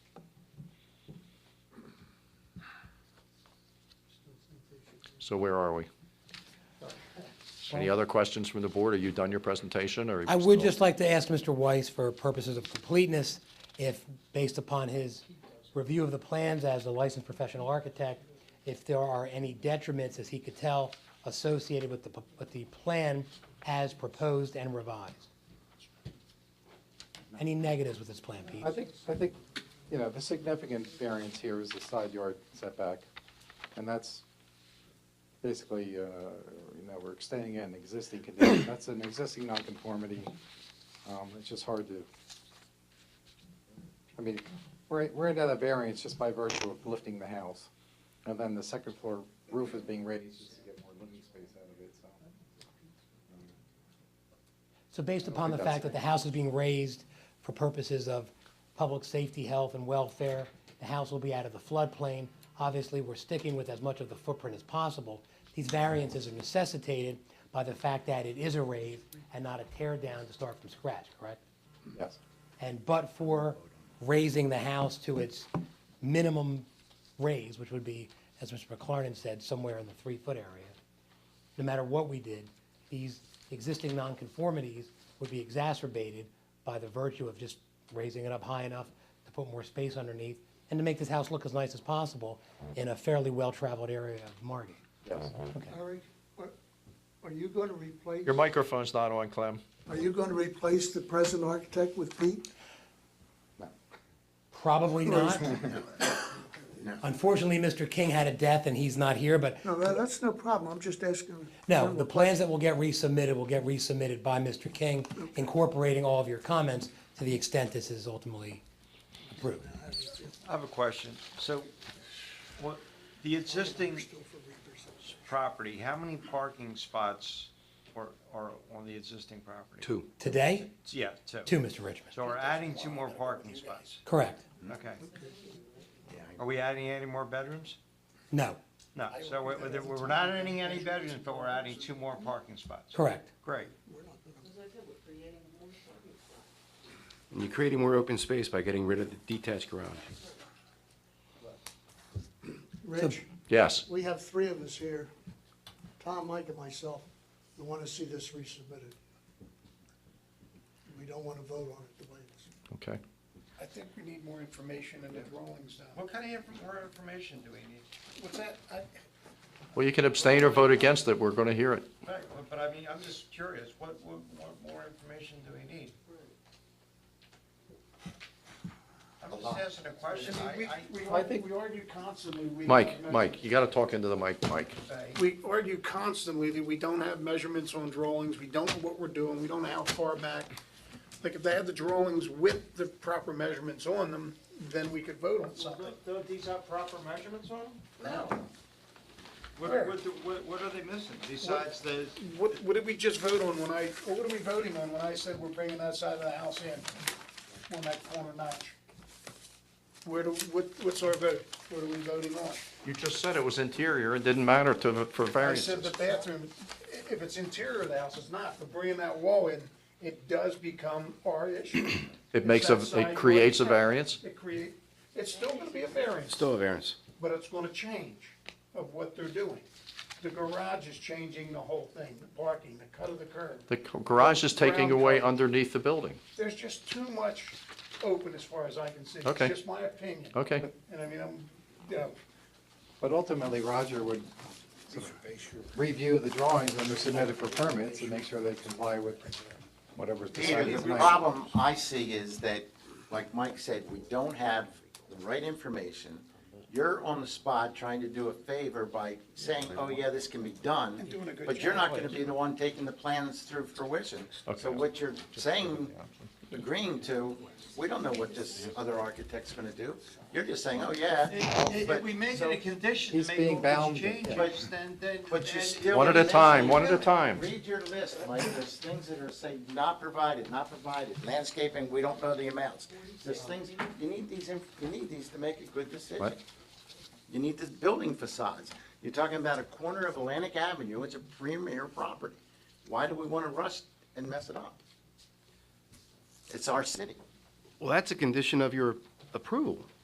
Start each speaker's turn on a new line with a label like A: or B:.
A: So where are we? Any other questions from the board? Are you done your presentation, or? are you
B: I would
A: still-
B: just like to ask Mr. Weiss, for purposes of completeness, if, based upon his review of the plans as a licensed professional architect, if there are any detriments, as he could tell, associated with the, p- with the plan as proposed and revised? Any negatives with this plan, Pete?
C: I think, I think, you know, the significant variance here is the side yard setback, and that's basically, uh, you know, we're extending an existing condition, that's an existing nonconformity. Um, It's just hard to, I mean, we're, we're into that variance just by virtue of lifting the house, and then the second floor roof is being raised just to get more living space out of it, so.
B: So based upon the
C: think that's
B: fact that the
C: right.
B: house is being raised for purposes of public safety, health, and welfare, the house will be out of the floodplain. Obviously, we're sticking with as much of the footprint as possible. These variances are necessitated by the fact that it is a raise and not a tear down to start from scratch, correct?
C: Yes,
B: And but for raising the house to its minimum raise, which would be, as Mr. McLaren said, somewhere in the three-foot area, no matter what we did, these existing nonconformities would be exacerbated by the virtue of just raising it up high enough to put more space underneath and to make this house look as nice as possible in a fairly well-traveled area of Margate.
C: yes.
B: Okay.
D: Eric, what- are you going to replace,
A: Your microphone's not on, Clem.
D: are you going to replace the present architect with Pete?
B: Probably not. Unfortunately, Mr. King had a death and he's not here, but
D: No, that- that's no problem, I'm just asking.
B: No, the plans that will get resubmitted will get resubmitted by Mr. King, incorporating all of your comments to the extent this is ultimately approved.
E: I have a question. So, what, the existing property, how many parking spots are, are on the existing property?
F: Two.
B: Today,
E: Yeah, two.
B: two, Mr. Richmond.
E: So we're adding two more parking spots.
B: Correct.
E: Okay. Are we adding any more bedrooms?
B: No,
E: No, so we're, we're- we're not adding any bedrooms, but we're adding two more parking spots.
B: correct.
E: Great.
F: And you're creating more open space by getting rid of the detached garage.
D: Rich,
A: Yes.
D: we have three of us here, Tom, Mike, and myself, who want to see this resubmitted. We don't want to vote on it the way it is.
A: Okay.
G: I think we need more information and the drawings done.
E: What kind of inf- more information do we need?
G: What's that? I-
A: Well, you can abstain or vote against it. We're going to hear it.
E: Right, but- but I mean, I'm just curious, what, what, what more information do we need? I'm just asking a question.
G: I mean,
E: I, I.
G: we- we
C: I think-
G: we argue constantly. we have
A: Mike,
G: measure-
A: Mike, you got to talk into the mic, Mike.
G: We argue constantly that we don't have measurements on drawings, we don't know what we're doing, we don't know how far back. Like, if they had the drawings with the proper measurements on them, then we could vote on something.
E: Don't these have proper measurements on them?
G: No.
E: What, what, do- what, what are they missing besides the,
G: What, what did we just vote on when I, or what are we voting on when I said we're bringing that side of the house in on that corner notch? Where do, what, what's our vote? What are we voting on?
A: You just said it was interior. It didn't matter to, the- for
G: I said
A: variances.
G: the bathroom, i- if it's interior of the house, it's not, but bringing that wall in, it does become our issue.
A: It makes a, it creates a variance.
G: It create, it's still gonna be a variance,
F: Still a variance.
G: but it's gonna change of what they're doing. The garage is changing the whole thing, the parking, the cut of the curb.
A: The garage is taking away underneath the building.
G: There's just too much open as far as I can see.
A: Okay.
G: It's just my opinion.
A: Okay.
G: And I mean, I'm, you know,
C: But ultimately, Roger would sort of review the drawings when they're submitted for permits and make sure they comply with whatever's
H: Peter,
C: decided
H: the
C: tonight.
H: problem I see is that, like Mike said, we don't have the right information. You're on the spot trying to do a favor by saying, oh, yeah, this can be done.
G: doing a good
H: But you're not gonna be the one taking the plans through fruition. So what you're saying, agreeing to, we don't know what this other architect's gonna do. You're just saying, oh, yeah.
E: if if
H: but-
E: we make
H: so-
E: it a condition
C: He's
E: to make
C: being
E: all
C: bound,
E: these
C: yeah.
E: changes, then, then.
H: But you
E: then-
H: still.
A: One at a time, one at a time.
H: Read your list, Mike, there's things that are say not provided, not provided, landscaping, we don't know the amounts. There's things, you need these, in- you need these to make a good decision.
A: What?
H: You need this building facades. You're talking about a corner of Atlantic Avenue, it's a premier property. Why do we wanna rush and mess it up? It's our city.
F: Well, that's a condition of your approval.